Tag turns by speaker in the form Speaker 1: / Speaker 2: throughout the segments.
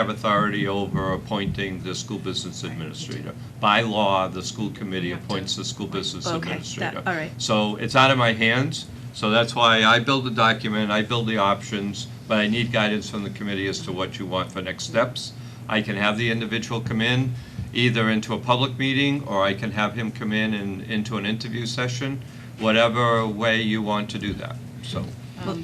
Speaker 1: have authority over appointing the school business administrator. By law, the school committee appoints the school business
Speaker 2: Okay, that-
Speaker 1: administrator.
Speaker 2: all right.
Speaker 1: So it's out of my hands, so that's why I build the document, I build the options, but I need guidance from the committee as to what you want for next steps. I can have the individual come in, either into a public meeting, or I can have him come in and into an interview session, whatever way you want to do that, so.
Speaker 2: Well,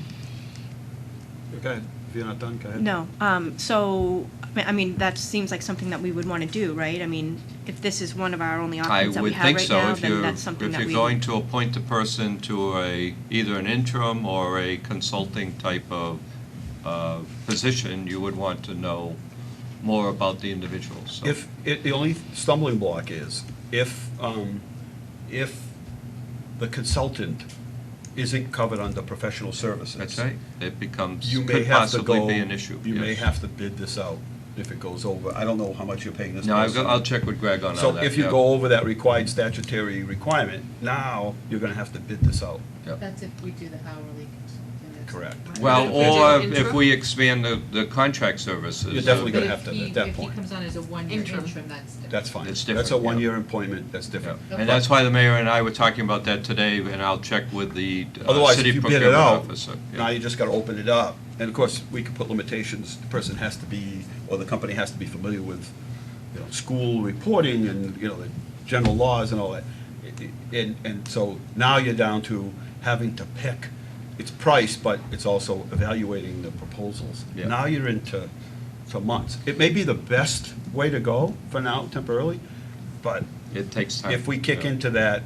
Speaker 3: Go ahead, if you're not done, go ahead.
Speaker 2: No, um, so, I mean- I mean, that seems like something that we would want to do, right? I mean, if this is one of our only
Speaker 1: I
Speaker 2: options that we
Speaker 1: would
Speaker 2: have
Speaker 1: think
Speaker 2: right
Speaker 1: so,
Speaker 2: now,
Speaker 1: if
Speaker 2: then
Speaker 1: you're,
Speaker 2: that's something
Speaker 1: if
Speaker 2: that we.
Speaker 1: you're going to appoint the person to a, either an interim or a consulting type of, uh, position, you would want to know more about the individual, so.
Speaker 3: If, it, the only stumbling block is, if, um, if the consultant isn't covered under professional services.
Speaker 1: That's right, it becomes,
Speaker 3: You may
Speaker 1: could
Speaker 3: have to
Speaker 1: possibly
Speaker 3: go.
Speaker 1: be an issue.
Speaker 3: You may
Speaker 1: yes.
Speaker 3: have to bid this out if it goes over. I don't know how much you're paying this
Speaker 1: No, I've
Speaker 3: person.
Speaker 1: got- I'll check with Greg on all that,
Speaker 3: So if you
Speaker 1: yeah.
Speaker 3: go over that required statutory requirement, now you're gonna have to bid this out.
Speaker 1: Yeah.
Speaker 4: That's if we do the hourly consultant.
Speaker 3: Correct.
Speaker 1: Well, or
Speaker 3: Individual
Speaker 1: if we expand the, the contract services.
Speaker 3: You're definitely
Speaker 1: uh,
Speaker 3: gonna have to at that
Speaker 4: If
Speaker 3: point.
Speaker 4: he comes on as a one-year
Speaker 5: Interim.
Speaker 4: interim, that's different.
Speaker 3: That's fine.
Speaker 1: It's
Speaker 3: That's a
Speaker 1: different, yeah.
Speaker 3: one-year appointment, that's different.
Speaker 1: yeah. And that's why the mayor and I were talking about that today, and I'll check with the uh,
Speaker 3: Otherwise, if
Speaker 1: city
Speaker 3: you bid
Speaker 1: procurement
Speaker 3: it out,
Speaker 1: officer. yeah.
Speaker 3: now you just gotta open it up. And of course, we could put limitations, the person has to be, or the company has to be familiar with, you know, school reporting and, you know, the general laws and all that. It- it- And, and so now you're down to having to pick, it's price, but it's also evaluating the proposals.
Speaker 1: Yeah.
Speaker 3: Now you're into, to months. It may be the best way to go for now temporarily, but
Speaker 1: It takes time.
Speaker 3: if we kick
Speaker 1: yeah.
Speaker 3: into that,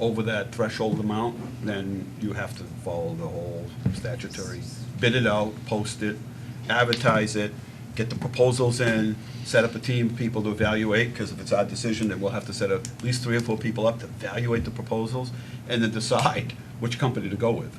Speaker 3: over that threshold amount, then you have to follow the whole statutory, bid it out, post it, advertise it, get the proposals in, set up a team of people to evaluate, because if it's our decision, then we'll have to set up at least three or four people up to evaluate the proposals, and then decide which company to go with.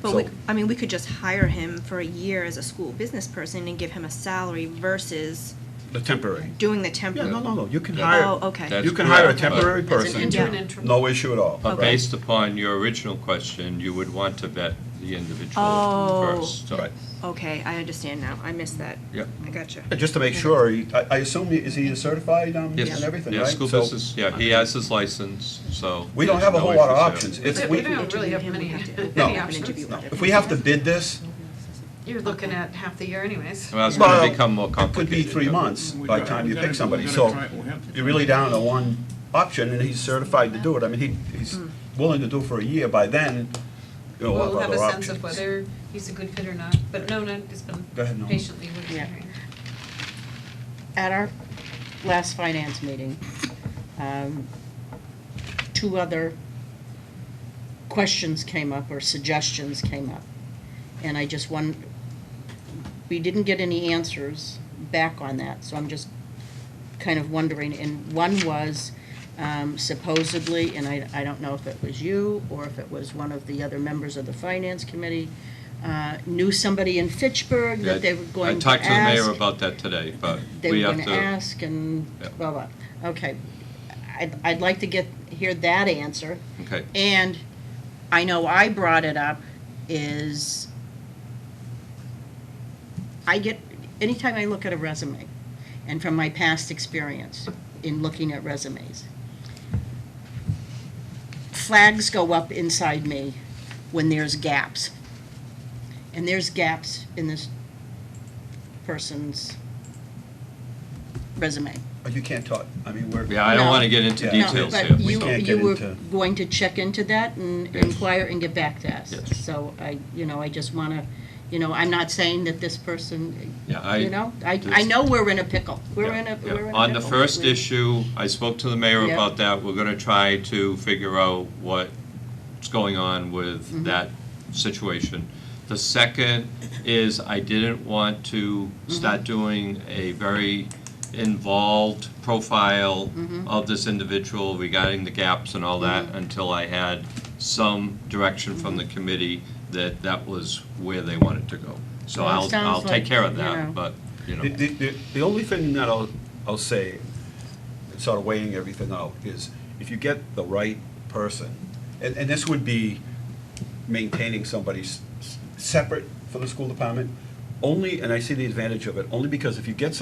Speaker 2: But we,
Speaker 3: So-
Speaker 2: I mean, we could just hire him for a year as a school business person and give him a salary versus
Speaker 3: The temporary.
Speaker 2: doing the
Speaker 3: Yeah,
Speaker 2: temporary.
Speaker 3: no, no, no, you can
Speaker 1: Yeah.
Speaker 3: hire.
Speaker 2: Oh, okay.
Speaker 1: That's
Speaker 3: You can hire a
Speaker 1: correct, but-
Speaker 3: temporary
Speaker 5: As an
Speaker 3: person.
Speaker 5: interim,
Speaker 2: Yeah.
Speaker 5: interim.
Speaker 3: No issue at all.
Speaker 1: But
Speaker 3: right?
Speaker 1: based upon your original question, you would want to vet the individual
Speaker 2: Oh.
Speaker 1: first. so-
Speaker 3: Right.
Speaker 2: Okay, I understand now. I missed that.
Speaker 1: Yep.
Speaker 2: I gotcha.
Speaker 3: And Just to make sure, he- I, I assume, he- is he certified um, and
Speaker 1: Yes,
Speaker 3: everything,
Speaker 1: yeah,
Speaker 3: right?
Speaker 1: school
Speaker 3: So-
Speaker 1: business, yeah, he has his license, so.
Speaker 3: We don't
Speaker 1: there's
Speaker 3: have a
Speaker 1: no
Speaker 3: whole lot of
Speaker 1: issues
Speaker 3: options.
Speaker 1: there.
Speaker 3: If
Speaker 5: We
Speaker 3: we,
Speaker 5: don't really have
Speaker 2: Him, we
Speaker 5: many,
Speaker 2: have to-
Speaker 3: No.
Speaker 2: have
Speaker 5: any
Speaker 2: an
Speaker 5: options.
Speaker 2: interview with him.
Speaker 3: if we have to bid this,
Speaker 5: You're looking at half the year anyways.
Speaker 1: Well, it's
Speaker 3: Well,
Speaker 1: gonna become more
Speaker 3: it could
Speaker 1: complicated.
Speaker 3: be three
Speaker 1: yeah.
Speaker 3: months by the time you pick somebody.
Speaker 6: We're
Speaker 3: So
Speaker 6: gonna try- we're gonna try-
Speaker 3: you're really down to one option, and he's certified to do it. I mean, he, he's willing to do it for a year. By then, you'll have
Speaker 5: Hmm. We'll have a
Speaker 3: other
Speaker 5: sense of
Speaker 3: options.
Speaker 5: whether he's a good fit or not, but no, no, it's been
Speaker 3: Go ahead, Norma.
Speaker 5: patiently waiting
Speaker 7: Yeah.
Speaker 5: here.
Speaker 7: At our last finance meeting, um, two other questions came up or suggestions came up. And I just want, we didn't get any answers back on that, so I'm just kind of wondering. And one was um, supposedly, and I, I don't know if it was you or if it was one of the other members of the finance committee, uh, knew somebody in Fitchburg
Speaker 1: Yeah,
Speaker 7: that they were going to
Speaker 1: I talked to the mayor
Speaker 7: ask
Speaker 1: about that today, but
Speaker 7: they
Speaker 1: we
Speaker 7: were
Speaker 1: have
Speaker 7: gonna
Speaker 1: to,
Speaker 7: ask and
Speaker 1: Yeah.
Speaker 7: blah, blah. Okay. I'd, I'd like to get, hear that answer.
Speaker 1: okay,
Speaker 7: And I know I brought it up is I get, anytime I look at a resume and from my past experience in looking at resumes, flags go up inside me when there's gaps. And there's gaps in this person's resume.
Speaker 3: But You can't talk, I mean, we're.
Speaker 1: yeah, I don't
Speaker 7: No.
Speaker 1: wanna get into
Speaker 3: Yeah.
Speaker 7: No,
Speaker 1: details
Speaker 7: but
Speaker 1: here.
Speaker 3: We
Speaker 7: you-
Speaker 3: can't
Speaker 7: You
Speaker 3: get
Speaker 7: were
Speaker 3: into-
Speaker 7: going to check into that and
Speaker 1: Yes.
Speaker 7: inquire and get back to us.
Speaker 1: Yes.
Speaker 7: So I, you know, I just want to, you know, I'm not saying that this person,
Speaker 1: Yeah, I-
Speaker 7: you know, I, I
Speaker 1: this-
Speaker 7: know we're in a pickle. We're
Speaker 1: Yeah,
Speaker 7: in a,
Speaker 1: yeah.
Speaker 7: we're in a pickle.
Speaker 1: On the first
Speaker 7: We-
Speaker 1: issue, I spoke to the mayor
Speaker 7: Yeah.
Speaker 1: about that, we're gonna try to figure out what's going on
Speaker 7: Mm-hmm.
Speaker 1: with that situation. The second is I didn't want to
Speaker 7: Mm-hmm.
Speaker 1: start doing a very involved profile
Speaker 7: Mm-hmm.
Speaker 1: of this individual regarding the gaps and all that until I had some direction from
Speaker 7: Mm-hmm.
Speaker 1: the committee that that was where they wanted to go. So
Speaker 7: Well, it
Speaker 1: I'll,
Speaker 7: sounds
Speaker 1: I'll take
Speaker 7: like,
Speaker 1: care of
Speaker 7: you know.
Speaker 1: that, but, you know.
Speaker 3: The, the- the, the only thing that I'll, I'll say, sort of weighing everything out, is if you get the right person, and, and this would be maintaining somebody s- s- separate from the school department, only, and I see the advantage of it, only because if you get